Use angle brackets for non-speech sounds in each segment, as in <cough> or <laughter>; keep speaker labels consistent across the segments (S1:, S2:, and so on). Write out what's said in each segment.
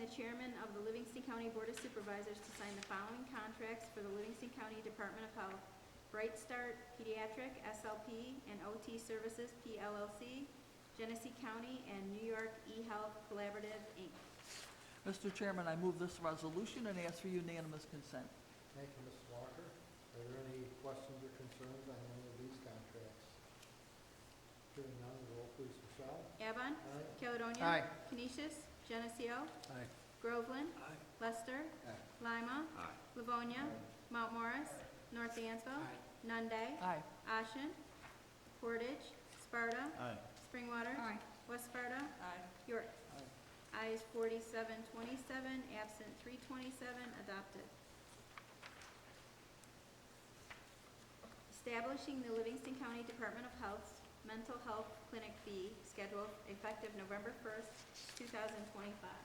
S1: the chairman of the Livingston County Board of Supervisors to sign the following contracts for the Livingston County Department of Health. Bright Start Pediatric, SLP, and OT Services, PLLC, Genesee County, and New York eHealth Collaborative, Inc.
S2: Mr. Chairman, I move this resolution and ask for unanimous consent.
S3: Thank you, Mrs. Walker. Are there any questions or concerns on any of these contracts? Hearing none, roll please, Michelle.
S1: Avon.
S3: Aye.
S1: Caledonia.
S3: Aye.
S1: Canisius. Geneseo.
S3: Aye.
S1: Groveland. Lester.
S3: Aye.
S1: Lima. Livonia. Mount Morris. North Dansville. Nunde.
S2: Aye.
S1: Ashen. Portage. Sparta.
S3: Aye.
S1: Springwater. West Sparta. York. Ayes forty-seven twenty-seven, absent three twenty-seven, adopted. Establishing the Livingston County Department of Health's Mental Health Clinic fee schedule effective November first, two thousand twenty-five.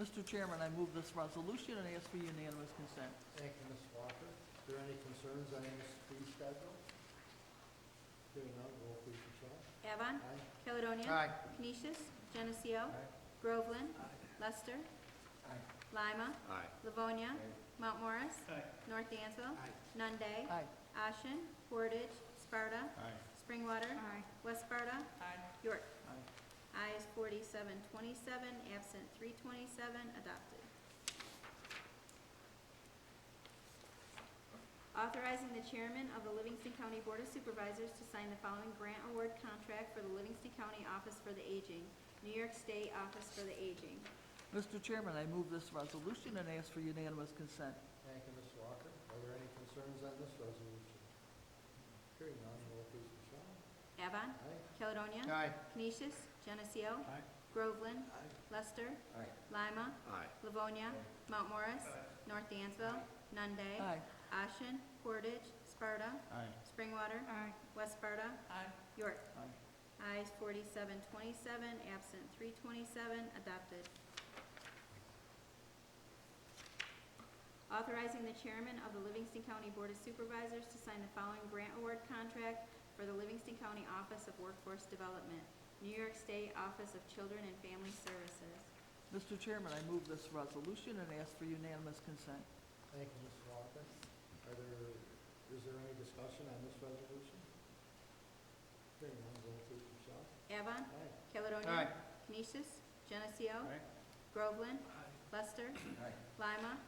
S2: Mr. Chairman, I move this resolution and ask for unanimous consent.
S3: Thank you, Mrs. Walker. Are there any concerns on this fee schedule? Hearing none, roll please, Michelle.
S1: Avon.
S3: Aye.
S1: Caledonia. Canisius. Geneseo. Groveland. Lester.
S3: Aye.
S1: Lima. Livonia. Mount Morris. North Dansville.
S3: Aye.
S1: Nunde.
S2: Aye.
S1: Ashen. Portage. Sparta.
S3: Aye.
S1: Springwater. West Sparta. York.
S2: Aye.
S1: Ayes forty-seven twenty-seven, absent three twenty-seven, adopted. Authorizing the chairman of the Livingston County Board of Supervisors to sign the following grant award contract for the Livingston County Office for the Aging, New York State Office for the Aging.
S2: Mr. Chairman, I move this resolution and ask for unanimous consent.
S3: Thank you, Mrs. Walker. Are there any concerns on this resolution? Hearing none, roll please, Michelle.
S1: Avon.
S3: Aye.
S1: Caledonia.
S3: Aye.
S1: Canisius. Geneseo.
S3: Aye.
S1: Groveland. Lester.
S3: Aye.
S1: Lima. Livonia. Mount Morris. North Dansville. Nunde.
S2: Aye.
S1: Ashen. Portage. Sparta.
S3: Aye.
S1: Springwater. West Sparta. York.
S2: Aye.
S1: Ayes forty-seven twenty-seven, absent three twenty-seven, adopted. Authorizing the chairman of the Livingston County Board of Supervisors to sign the following grant award contract for the Livingston County Office of Workforce Development, New York State Office of Children and Family Services.
S2: Mr. Chairman, I move this resolution and ask for unanimous consent.
S3: Thank you, Mrs. Walker. Are there, is there any discussion on this resolution? Hearing none, roll please, Michelle.
S1: Avon.
S3: Aye.
S1: Caledonia. Canisius. Geneseo. Groveland. Lester.
S3: Aye.
S1: Lima.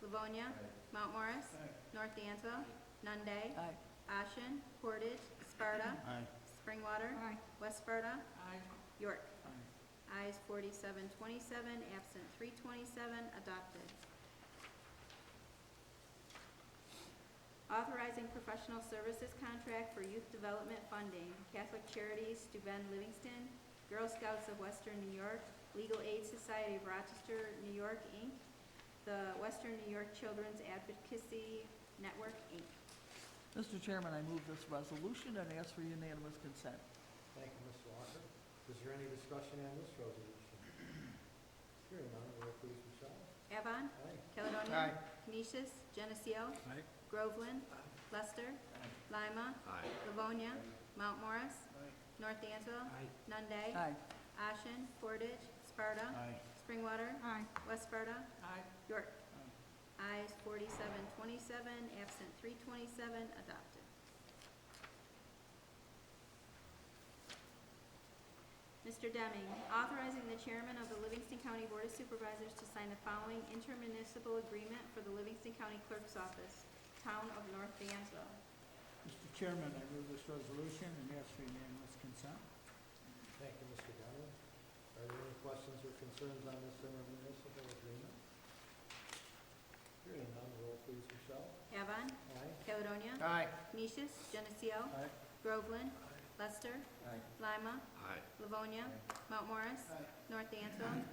S1: Livonia. Mount Morris. North Dansville. Nunde.
S2: Aye.
S1: Ashen, Portage, Sparta, Springwater, West Sparta, York. Ayes forty-seven twenty-seven, absent three twenty-seven, adopted. Authorizing professional services contract for youth development funding, Catholic Charities, Steuben Livingston, Girl Scouts of Western New York, Legal Aid Society of Rochester, New York, Inc., the Western New York Children's Advocacy Network, Inc.
S2: Mr. Chairman, I move this resolution and ask for unanimous consent.
S3: Thank you, Mrs. Walker. Is there any discussion on this resolution? Hearing none, roll please, Michelle.
S1: Avon,
S3: Aye.
S1: Caledonia. Canisius, Geneseo. Groveland. Lester. Lima. Livonia. Mount Morris. North Dansville. Nunde.
S2: Aye.
S1: Ashen. Portage. Sparta. Springwater. West Sparta. York. Ayes forty-seven twenty-seven, absent three twenty-seven, adopted. Mr. Deming, authorizing the chairman of the Livingston County Board of Supervisors to sign the following intermunicipal agreement for the Livingston County Clerk's Office, Town of North Dansville.
S4: Mr. Chairman, I move this resolution and ask for unanimous consent.
S3: Thank you, Mr. Donovan. Are there any questions or concerns on this intermunicipal agreement? Hearing none, roll please, Michelle.
S1: Avon,
S3: Aye.
S1: Caledonia.
S3: Aye.
S1: Canisius, Geneseo.
S3: Aye.
S1: Groveland. Lester.
S3: Aye.
S1: Lima. Livonia. Mount Morris. North Dansville.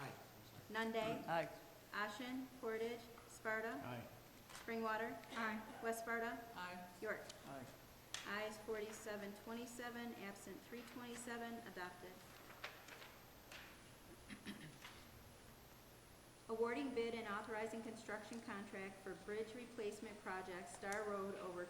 S3: Aye.
S1: Nunde.
S2: Aye.
S1: Ashen, Portage, Sparta,
S3: Aye.
S1: Springwater. West Sparta. York.
S2: Aye.
S1: Ayes forty-seven twenty-seven, absent three twenty-seven, adopted. <clears throat> Awarding bid and authorizing construction contract for bridge replacement project Star Road over